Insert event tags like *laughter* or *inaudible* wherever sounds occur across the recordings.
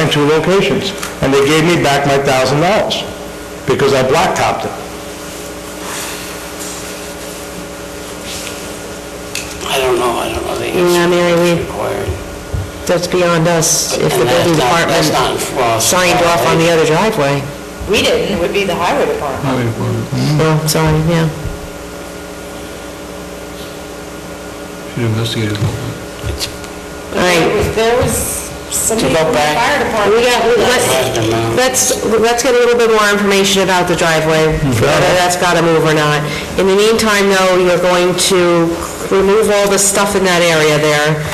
in two locations, and they gave me back my thousand dollars, because I blacktopped it. I don't know, I don't know the Yeah, Mary, we- required. That's beyond us, if the And that's building not- department that's not, well, signed off on the other driveway. We didn't, it would be the highway department. Well, sorry, yeah. Should investigate it. It's All right, There was somebody To go from the back. fire department. we got, not let's, the amount. let's, let's get a little bit more information about the driveway, whether that's gotta move or not. In the meantime, though, you're going to remove all the stuff in that area there,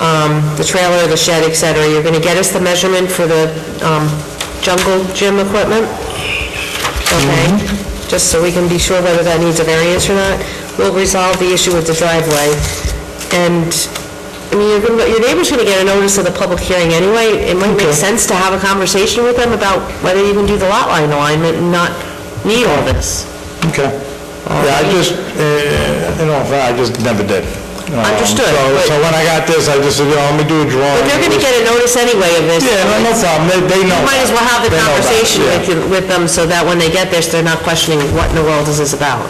um, the trailer, the shed, et cetera. You're gonna get us the measurement for the, um, jungle gym equipment? Okay, Mm-hmm. just so we can be sure whether that needs a variance or not. We'll resolve the issue with the driveway. And, I mean, you're gonna- your neighbor's going to get a notice of the public hearing anyway. It might make sense to have a conversation with them about whether you can do the lot line alignment and not need all this. Okay. Yeah, I just, uh, you know, I just never did. Um, Understood, so- but- So when I got this, I just said, you know, let me do a drawing. But they're going to get a notice anyway of this. Yeah, no, no problem, they, they know. You might as well have the They know about it, conversation yeah. with, you- with them so that when they get this, they're not questioning what in the world is this about.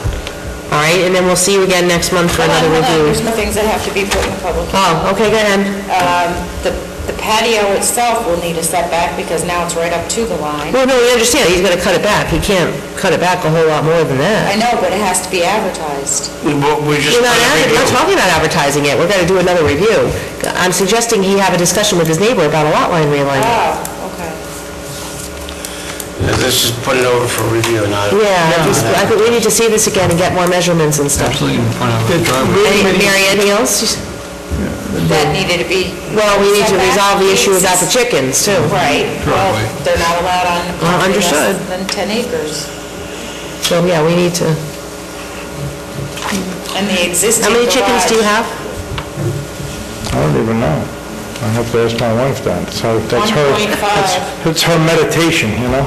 All right, and then we'll see you again next month for Hold on, another hold on, review. there's some things that have to be put in the public. Oh, okay, go ahead. Um, The the patio itself will need a setback because now it's right up to the line. Well, no, we understand, he's gonna cut it back, he can't cut it back a whole lot more than I that. know, but it has to be advertised. We we just... We're not, adver- not talking about advertising it, we're gonna do another review. I'm suggesting he have a discussion with his neighbor about a lot line realignment. Oh, okay. Let's just put it over for review, not... Yeah, I just- I think we need to see this again and get more measurements and stuff. Absolutely in front of the driveway. Any- Mary, anything else? That needed to be... Well, we need to resolve the issue about the chickens, too. Right. Well, Driveway. they're not allowed on Well, property understood. less than 10 acres. So, yeah, we need to, And the existing how many chickens do you garage- have? I don't even know. I have to ask my wife that, so that's her... 1.5. that's- It's her meditation, you know?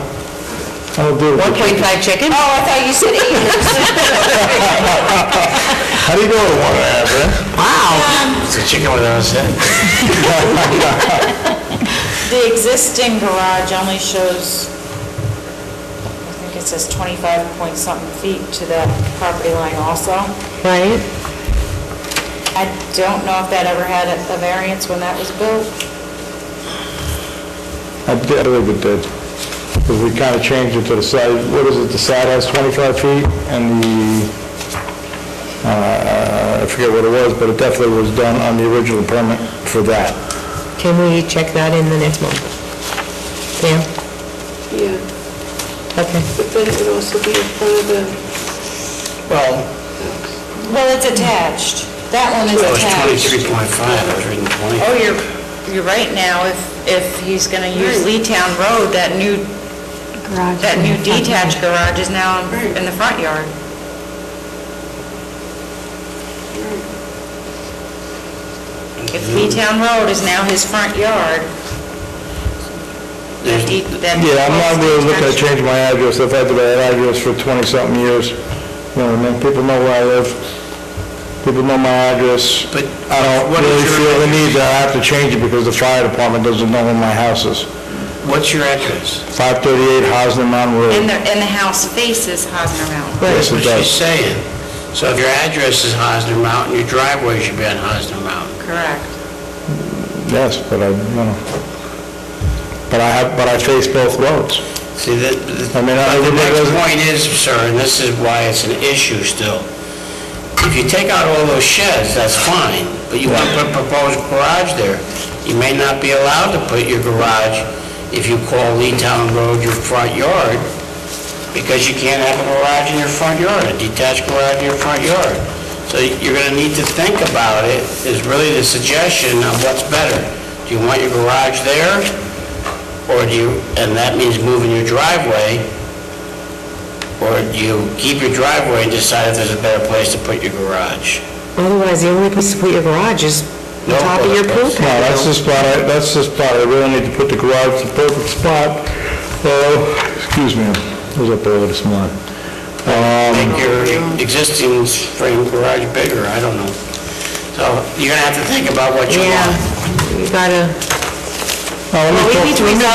I don't do it. One point five chickens? Oh, I thought you said acres. *laughs* *laughs* How do you go to one and a half, eh? Wow, It's a chicken without a head. The existing garage only shows, I think it says 25 point something feet to the property line also. right? I don't know if that ever had a a variance when that was built. I did- I believe it did, because we kind of changed it to the side, what is it, the side has 25 feet, and the, uh, I forget what it was, but it definitely was done on the original permit for that. Can we check that in the next month? Yeah, Yeah, okay. but then it would also be in front of the Well, Well, it's attached. That one is it was attached. 23.5, I was reading 20. Oh, you're, you're right now, if, if he's going to use Lee Town Road, that new, garage. that new detached garage is now in in the front yard. If Lee Town Road is now his front yard, that de- that... Yeah, I'm not really looking to change my address, I've had that address for 20-something years, you know, what I mean? people know where I live, people know my address. But I don't what is really your- feel the need that I have to change it, because the fire department doesn't know where my house is. What's your address? 538 Hosner Mountain And Road. the, and the house faces Hosner Mountain. Yes, it What she's does. saying. So if your address is Hosner Mountain, your driveway should be on Hosner Mountain. Correct. Yes, but I, you know, but I have, but I face both roads. See, that, I mean, I- the next point is, sir, and this is why it's an issue still, if you take out all those sheds, that's fine, but you want to put a proposed garage there, you may not be allowed to put your garage, if you call Lee Town Road your front yard, because you can't have a garage in your front yard, a detached garage in your front yard. So you're gonna need to think about it, is really the suggestion of what's better. Do you want your garage there, or do you, and that means moving your driveway, or do you keep your driveway and decide if there's a better place to put your garage? Otherwise, the only place to put your garage is on No, top of your pool that's- No, that's patio. the spot, I- that's the spot, I really need to put the garage in the perfect spot. Oh, excuse me, I was up early this morning. Um, Make your existing frame garage bigger, I don't know. So you're gonna have to think about what you want. Yeah, you gotta, now, Oh, let me well, talk- we need to resolve